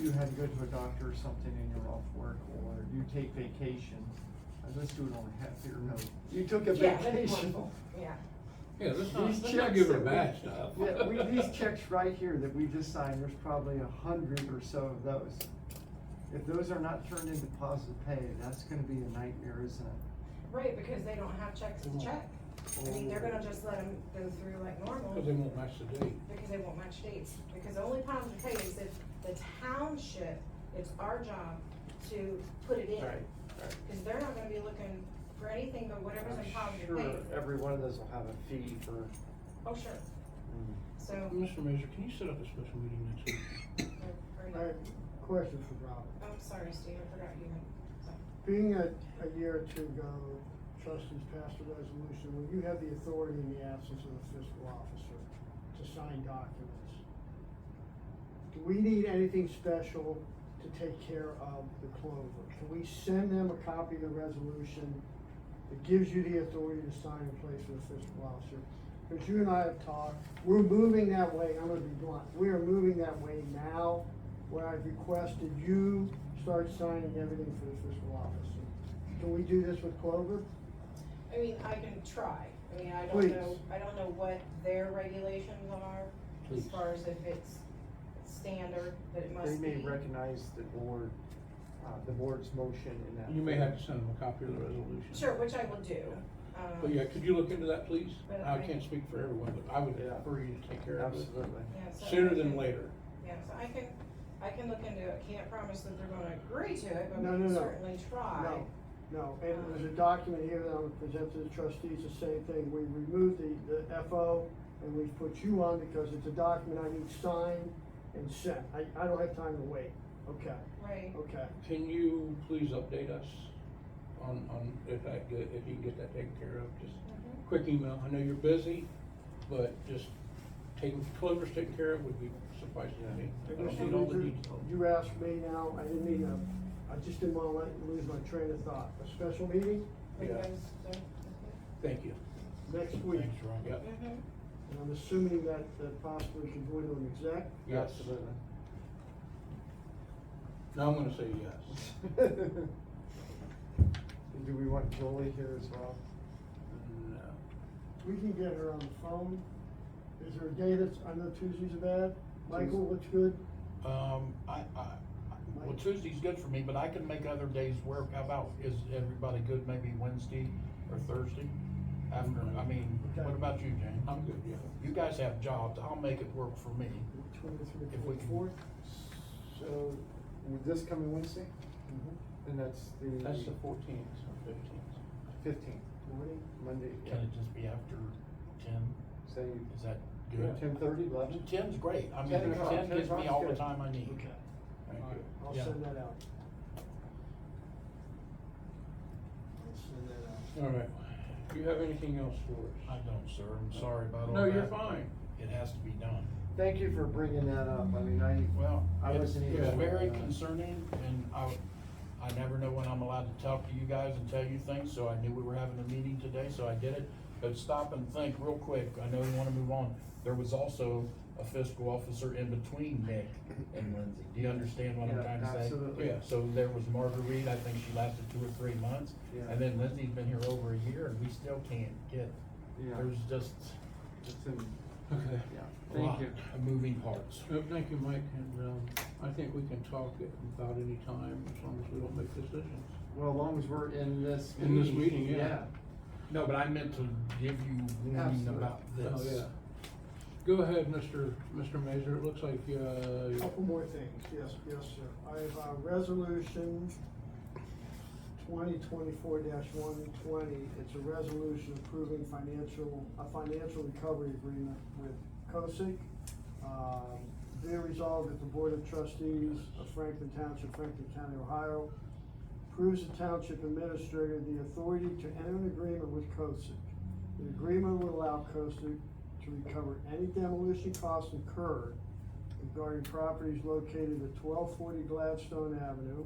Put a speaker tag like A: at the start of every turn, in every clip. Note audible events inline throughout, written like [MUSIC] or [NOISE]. A: you had to go to a doctor or something and you're off work, or you take vacation, uh, let's do it on a happier note. You took a
B: Yeah, that's
A: vacation.
B: wonderful. Yeah,
C: Yeah, let's not,
A: These
C: let's not
A: checks
C: give her
A: that we-
C: bad stuff.
A: Yeah, we, these checks right here that we just signed, there's probably a hundred or so of those. If those are not turned into positive pay, that's gonna be a nightmare, isn't it?
B: right, because they don't have checks to check. I mean, they're gonna just let them go through like normal
C: [LAUGHS] Cause they won't match the date.
B: because they won't match dates. Because the only positive pay is if the township, it's our job to put it in.
A: Right, right.
B: Cause they're not gonna be looking for anything but whatever's in
A: I'm
B: positive
A: sure
B: pay.
A: every one of those will have a fee for. hmm.
B: Oh, sure. So,
C: Mr. Major, can you set up a special meeting next week?
B: or-
D: I have a question for Rob.
B: I'm Oh, sorry, Steve, I forgot you.
D: Being a, a year or two ago, trustees passed a resolution where you have the authority in the absence of the fiscal officer to sign documents. Do we need anything special to take care of the Clover? Can we send them a copy of the resolution that gives you the authority to sign in place of the fiscal officer? Because you and I have talked, we're moving that way, I'm gonna be blunt, we are moving that way now where I've requested you start signing everything for the fiscal officer. Can we do this with Clover?
B: I mean, I can try. I mean, I don't
D: Please.
B: know, I don't know what their regulations are as
C: Please.
B: far as if it's standard that it
A: They
B: must be.
A: may recognize the board, uh, the board's motion in that.
C: You may have to send them a copy of the resolution.
B: Sure, which I will do. Um,
C: But yeah, could you look into that, please?
B: But
C: I
B: I-
C: can't speak for everyone, but I would
A: Yeah.
C: prefer you to take care of it
A: Absolutely.
B: yeah, so I
C: sooner than
B: can-
C: later.
B: Yeah, so I can, I can look into it. Can't promise that they're gonna agree to it, but
D: No,
B: we
D: no,
B: can
D: no.
B: certainly try.
D: No, no, and there's a document here that I'm gonna present to the trustees, the same thing, we removed the, the FO and we put you on because it's a document I need signed and sent, I, I don't have time to wait, okay,
B: Right,
D: okay.
C: Can you please update us on, on if that, if you can get that taken care of? Just
B: Mhm.
C: quick email. I know you're busy, but just taking, Clover's taken care of would be suffice to me. I
D: I guess
C: don't
D: you,
C: need all the
D: you-
C: details.
D: you asked me now, I didn't mean to, I just didn't wanna let, lose my train of thought, a special meeting
C: Yeah.
B: because, so,
C: Thank you.
D: next week.
C: Ron. Yep.
B: mhm.
D: And I'm assuming that, that possibly can go into an exec.
C: Yes.
A: Absolutely.
C: No, I'm gonna say yes.
A: [LAUGHS] Do we want Jolie here as well?
C: No.
D: We can get her on the phone. Is there a day that's, I know Tuesdays are bad. Michael, what's good?
E: Um, I, I, well, Tuesday's good for me, but I can make other days work. How about, is everybody good maybe Wednesday or Thursday? After, I mean, what about you, Jane?
C: I'm good, yeah.
E: You guys have jobs. I'll make it work for me.
D: Twenty-three,
E: If we can-
D: twenty-fourth?
A: [LAUGHS] So, with this coming Wednesday, and that's
C: That's the
A: the
C: fourteenth or fifteenth.
A: fifteenth,
D: Morning?
A: Monday,
E: Can it just be after ten?
A: say
E: Is that good?
A: ten thirty, eleven?
E: Ten's great. I mean,
A: 10 o'clock.
E: ten
A: 10
E: gives me
A: o'clock's
E: all the
A: good.
E: time I need.
C: Thank you.
D: I'll
E: Yeah.
D: send that out. I'll send that out.
C: All right. Do you have anything else for
E: I
C: us?
E: don't, sir. I'm sorry about all
C: No,
E: that.
C: you're fine.
E: It has to be done.
A: Thank you for bringing that up, I mean, I,
E: Well,
A: I
E: it's,
A: wasn't
E: it's
A: even- uh,
E: very concerning and I, I never know when I'm allowed to talk to you guys and tell you things, so I knew we were having a meeting today, so I did it. But stop and think real quick, I know you wanna move on. There was also a fiscal officer in between Nick and Lindsay. Do you understand what
A: Yeah,
E: I'm trying to say?
A: absolutely.
E: Yeah, so there was Marguerite, I think she lasted two or three months.
A: Yeah.
E: And then Lindsay's been here over a year and we still can't get,
A: yeah,
E: there's just
A: it's in,
C: Okay.
A: yeah,
E: a lot
A: thank you.
E: of moving parts.
C: No, thank you, Mike, and, um, I think we can talk it without any time, as long as we don't make decisions.
A: Well, as long as we're in this.
C: In this meeting, yeah.
E: No, but I meant to give you warning
A: Absolutely.
E: about this.
C: Oh, yeah. Go ahead, Mr. Mr. Mazur, it looks like, uh,
D: Couple more things, yes, yes, sir. I have a resolution twenty twenty-four one twenty. It's a resolution approving financial, a financial recovery agreement with COSIC. Um, Be it resolved that the Board of Trustees of Franklin Township, Franklin County, Ohio, approves the Township Administrator the authority to enter an agreement with COSIC. The agreement will allow COSIC to recover any demolition costs incurred regarding properties located at twelve forty Gladstone Avenue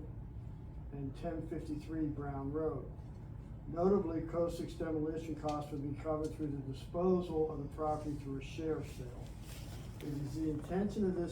D: and ten fifty-three Brown Road. Notably, Coastic's demolition costs would be covered through the disposal of the property through a share sale. It is the intention of this